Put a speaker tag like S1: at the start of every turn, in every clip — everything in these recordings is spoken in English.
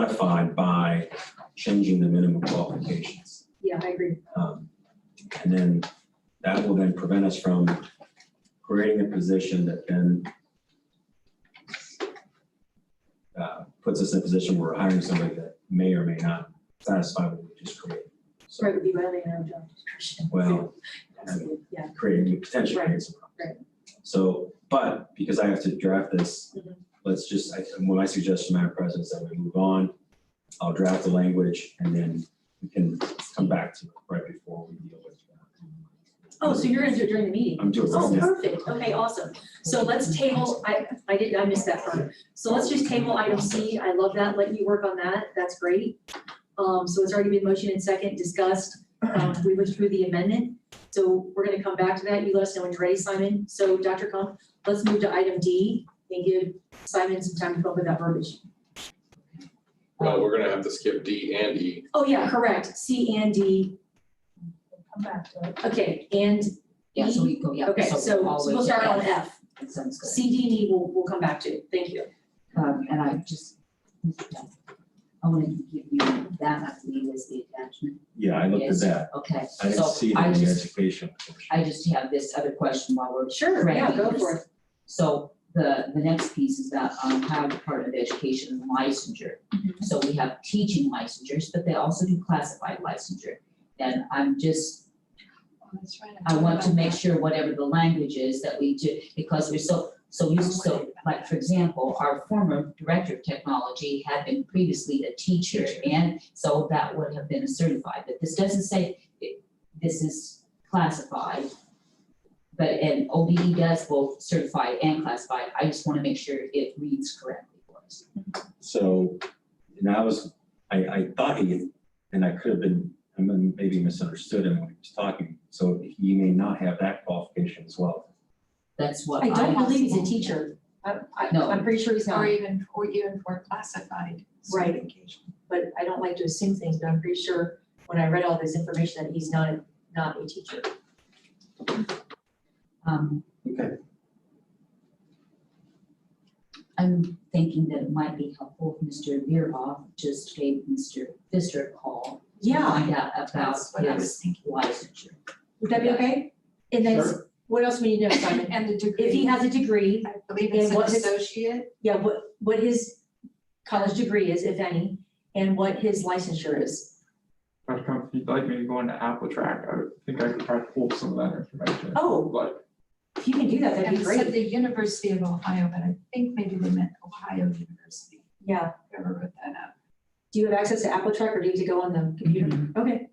S1: modified by changing the minimum qualifications.
S2: Yeah, I agree.
S1: Um, And then that will then prevent us from creating a position that then uh, puts us in a position where we're hiring somebody that may or may not satisfy what we just created. So,
S2: Right, would be violating our job description.
S1: well,
S2: Yeah,
S1: creating, potentially creating some
S2: Right,
S1: problems. So, but because I have to draft this,
S2: Mhm.
S1: let's just, I, my suggestion, Madam President, is that we move on. I'll draft the language and then we can come back to it right before we deal with. that.
S2: Oh, so you're gonna do it during the meeting?
S1: I'm doing
S2: Oh,
S1: this.
S2: perfect. Okay, awesome. So let's table, I, I didn't, I missed that part. So let's just table item C. I love that. Let you work on that. That's great. Um, so it's already been motioned and second discussed. Um, we went through the amendment. So we're gonna come back to that. You let us know when you're ready, Simon. So Dr. Kump, let's move to item D and give Simon some time to come up with that verbiage.
S3: No, we're gonna have to skip D and E.
S2: Oh, yeah, correct. C and D.
S4: Come back to it.
S2: Okay, and,
S5: Yeah, so we go, yeah.
S2: okay, so
S5: all the
S2: so
S5: way
S2: we'll
S5: to
S2: start on
S5: F.
S2: F.
S5: That Sounds good.
S2: C, D, and E, we'll, we'll come back to. Thank you.
S5: Um, and I just, I wanted to give you that, I believe, is the attachment.
S1: Yeah, I looked at
S5: Yes.
S1: that.
S5: Okay,
S1: I didn't
S5: so
S1: see it
S5: I
S1: in the
S5: just,
S1: education. portion.
S5: I just have this other question while we're,
S2: Sure, yeah, go
S5: Right.
S2: for it.
S5: so the, the next piece is that um, Ohio Department of Education licensure.
S2: Mhm.
S5: So we have teaching licensures, but they also do classified licensure. And I'm just
S4: That's right.
S5: I want to make sure whatever the language is that we do, because we're so, so used to, so, like, for example, our former director of technology had been previously a teacher, and so that would have been certified, but this doesn't say it- this is classified. But, and OBE does both certified and classified, I just wanna make sure it reads correctly for us.
S1: So, and I was, I, I thought he, and I could have been, I mean, maybe misunderstood him when he was talking. So he may not have that qualification as well.
S5: That's what I.
S2: I don't believe he's a teacher. I, I,
S5: No.
S2: I'm pretty sure he's
S4: Or
S2: not,
S4: even, or even for classified
S2: Right.
S4: certification.
S2: but I don't like to assume things, but I'm pretty sure when I read all this information that he's not, not a teacher.
S5: Um.
S1: Okay.
S5: I'm thinking that it might be helpful if Mr. Veeroff just gave Mr. Pfister a call. to
S2: Yeah,
S5: Find out about
S4: That's what I was
S5: his licensure.
S2: would that be okay? And then, s- what else we need to know, Simon?
S4: And the degree.
S2: If he has a degree,
S4: I believe it's
S2: and
S4: an
S2: what his-
S4: associate.
S2: yeah, what, what his college degree is, if any, and what his licensure is.
S6: Dr. Kump, if you'd like me to go into Apple Track, I would think I could try to pull some of that information.
S2: Oh,
S6: Like,
S2: if you can do that, that'd
S4: And
S2: be
S4: it said
S2: great.
S4: the University of Ohio, but I think maybe they meant Ohio University.
S2: Yeah.
S4: Whoever wrote that up.
S2: Do you have access to Apple Track or do you have to go on the computer?
S4: Mm-hmm.
S2: Okay,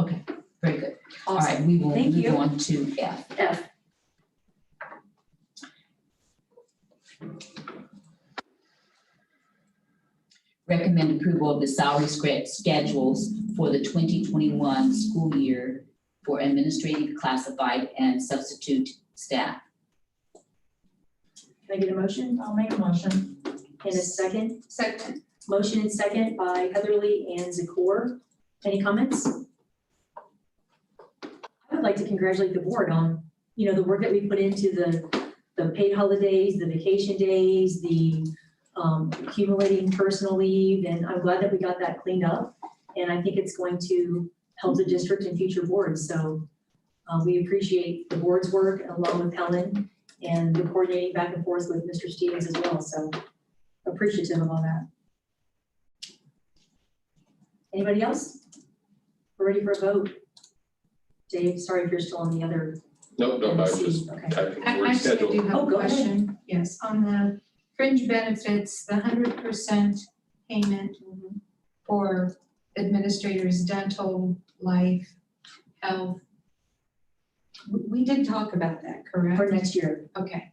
S5: Mm-hmm. Very good. All
S2: awesome.
S5: right, we will
S2: Thank
S5: move
S2: you.
S5: on to F.
S2: F.
S5: Recommend approval of the salary scra- schedules for the twenty twenty-one school year for administrative classified and substitute staff.
S2: Can I get a motion?
S4: I'll make a motion.
S2: And a second?
S4: Second.
S2: Motion and second by Heatherly and Zakor. Any comments? I would like to congratulate the board on, you know, the work that we put into the, the paid holidays, the vacation days, the um, accumulating personal leave, and I'm glad that we got that cleaned up. And I think it's going to help the district and future boards, so uh, we appreciate the board's work along with Helen and the coordinating back and forth with Mr. Stevens as well, so appreciative of all that. Anybody else? We're ready for a vote. Dave, sorry if you're still on the other.
S3: Nope, no, I was just
S2: Okay.
S3: typing the
S4: I
S3: word
S4: Actually, I
S3: schedule.
S4: do have
S2: Oh,
S4: a
S2: go ahead.
S4: question. Yes, on the fringe benefits, the hundred percent payment for administrators, dental, life, health. We, we did talk about that,
S2: For
S4: correct?
S2: next year,
S4: Okay,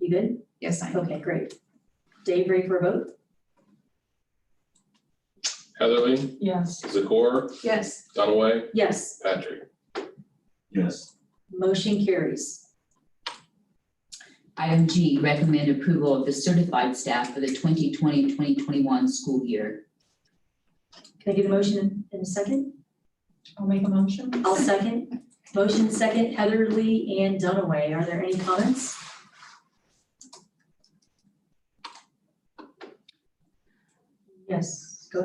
S2: you good?
S4: yes, I am.
S2: Okay, great. Dave, ready for a vote?
S3: Heatherly,
S4: Yes.
S3: Zakor,
S4: Yes,
S3: Dunaway,
S2: Yes,
S3: Patrick.
S1: Yes.
S2: motion carries.
S5: Item G, recommend approval of the certified staff for the 2020-2021 school year.
S2: Can I get a motion in a second?
S4: I'll make a motion.
S2: I'll second. Motion second, Heather Lee and Dunaway. Are there any comments? Yes.